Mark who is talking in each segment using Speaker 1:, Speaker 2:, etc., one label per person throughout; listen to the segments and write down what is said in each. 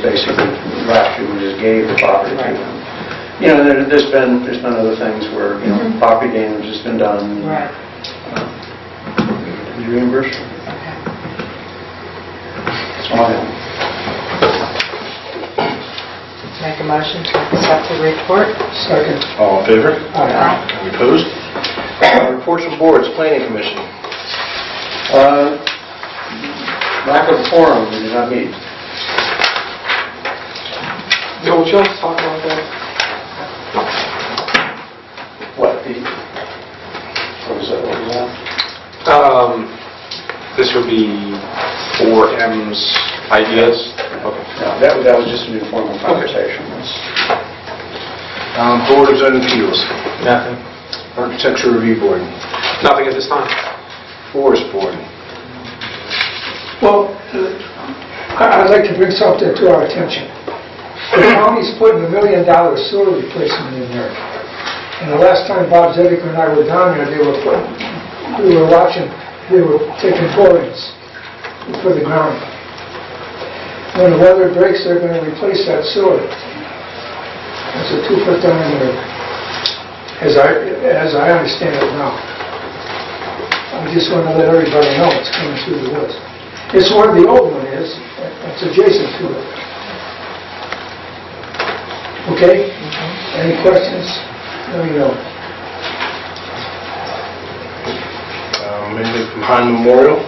Speaker 1: basically, last year, we just gave the property to them. You know, there- there's been, there's been other things where, you know,
Speaker 2: Mhm.
Speaker 1: property damage has been done.
Speaker 2: Right,
Speaker 1: Did you reimburse?
Speaker 2: okay.
Speaker 1: That's all I have.
Speaker 2: Make a motion to accept the report.
Speaker 3: Second.
Speaker 4: All in favor?
Speaker 2: Aye.
Speaker 4: Any opposed? Uh, Reports from boards, planning commission.
Speaker 1: Uh, Lack of forum, we did not meet.
Speaker 3: Bill, would you like to talk about that?
Speaker 1: What, the, what was that, what was that?
Speaker 5: Um, This would be 4M's ideas? Okay.
Speaker 1: No, that was, that was just an informal conversation. That's-
Speaker 4: Um, Board of Zoning Appeals,
Speaker 5: Nothing.
Speaker 4: Architecture Review Board,
Speaker 5: Nothing at this time?
Speaker 4: Forest Board.
Speaker 3: Well, I- I'd like to bring something to our attention. The county's putting a million dollar sewer replacement in there. And the last time Bob Zedek and I were down there, they were, put- we were watching, they were taking borings for the ground. When the weather breaks, they're gonna replace that sewer. That's a two foot diameter, as I, as I understand it now. I just wanna let everybody know it's coming through the woods. It's where the old one is, it's adjacent to it. Okay?
Speaker 2: Uh,
Speaker 3: Any questions? Let me know.
Speaker 4: Um, Anything from Hine Memorial,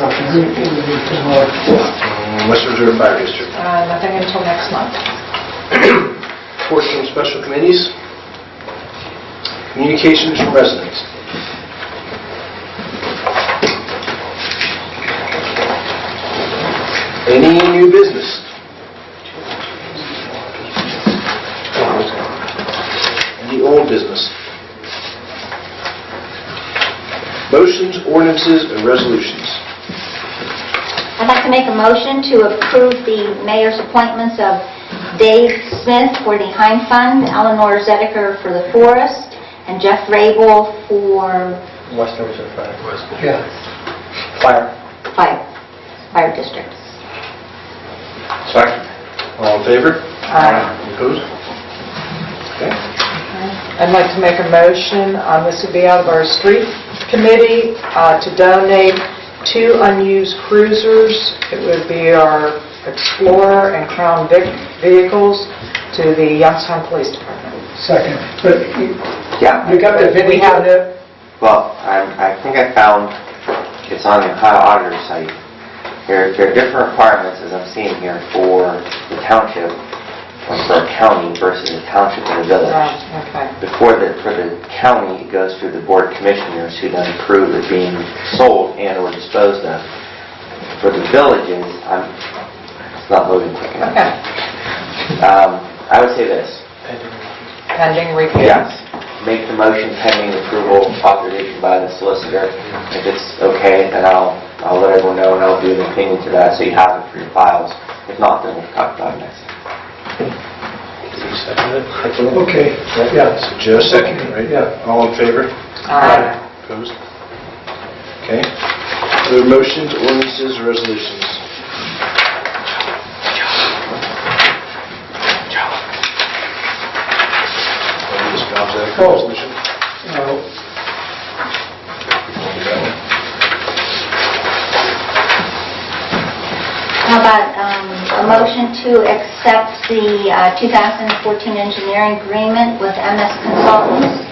Speaker 3: Nothing, we we need to know.
Speaker 4: um, West Reserve Fire District.
Speaker 2: Uh, Nothing until next month.
Speaker 4: Reports from special committees. Communications from residents. Any new business? Any old business? Motions, ordinances, and resolutions.
Speaker 6: I'd like to make a motion to approve the mayor's appointments of Dave Smith for the Heim Fund, Eleanor Zediker for the forest, and Jeff Rabel for
Speaker 1: West Dorset Fire.
Speaker 3: Yeah.
Speaker 1: Fire.
Speaker 6: fire, fire districts.
Speaker 4: Second. All in favor?
Speaker 2: Aye.
Speaker 4: Opposed? Okay.
Speaker 2: I'd like to make a motion, uh, this would be out of our street committee, uh, to donate two unused cruisers. It would be our Explorer and Crown Vic vehicles to the Youngstown Police Department.
Speaker 3: Second, but you
Speaker 7: Yeah,
Speaker 3: you got the
Speaker 2: We
Speaker 3: vintage
Speaker 2: have-
Speaker 3: on that?
Speaker 7: well, I I think I found, it's on the Ohio Auditor site. There there are different requirements, as I'm seeing here, for the township, or for a county versus a township and
Speaker 2: Right,
Speaker 7: a village.
Speaker 2: Okay.
Speaker 7: Before the, for the county, it goes through the board of commissioners who then approve it being sold and/or disposed of. For the villages, I'm, it's not loading quick enough.
Speaker 2: Okay.
Speaker 7: Um, I would say this,
Speaker 2: Pending review.
Speaker 7: Yes. Make the motion pending approval authorization by the solicitor. If it's okay, then I'll, I'll let everyone know and I'll do an opinion to that so you have it for your files. If not, then we'll talk about it next. time.
Speaker 4: You second it?
Speaker 3: Okay, yeah.
Speaker 4: So Joe seconded, right?
Speaker 3: Yeah.
Speaker 4: All in favor?
Speaker 2: Aye.
Speaker 4: Opposed? Okay. Other motions, ordinances, resolutions? Just Bob's act,
Speaker 3: Oh.
Speaker 4: resolution.
Speaker 3: Uh,
Speaker 6: How about um, a motion to accept the uh, 2014 engineering agreement with MS Consultants?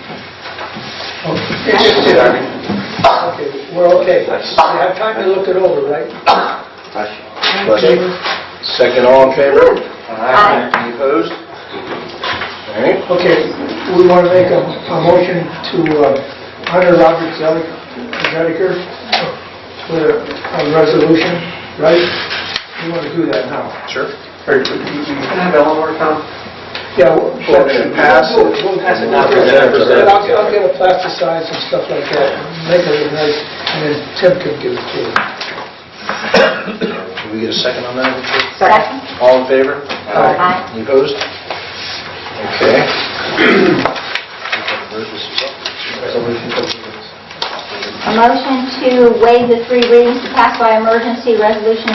Speaker 3: Okay, we're okay. You have time to look it over, right?
Speaker 7: Question?
Speaker 4: Question? Second, all in favor?
Speaker 6: Aye.
Speaker 4: Any opposed? All right.
Speaker 3: Okay, we want to make a a motion to uh, honor Robert Zelig- Zediker with a a resolution, right? We want to do that now.
Speaker 4: Sure.
Speaker 1: Can I have Eleanor come?
Speaker 3: Yeah. we'll-
Speaker 4: Well, then pass it.
Speaker 3: We'll- we'll-
Speaker 4: Pass it now.
Speaker 3: But I'll I'll get it plasticized and stuff like that, and make it look nice, and then Tim can give it to you.
Speaker 4: Can we get a second on that? Richard?
Speaker 6: Second?
Speaker 4: All in favor?
Speaker 6: Aye.
Speaker 4: Any opposed? Okay. Resolution.
Speaker 6: A motion to waive the three readings to pass by emergency resolution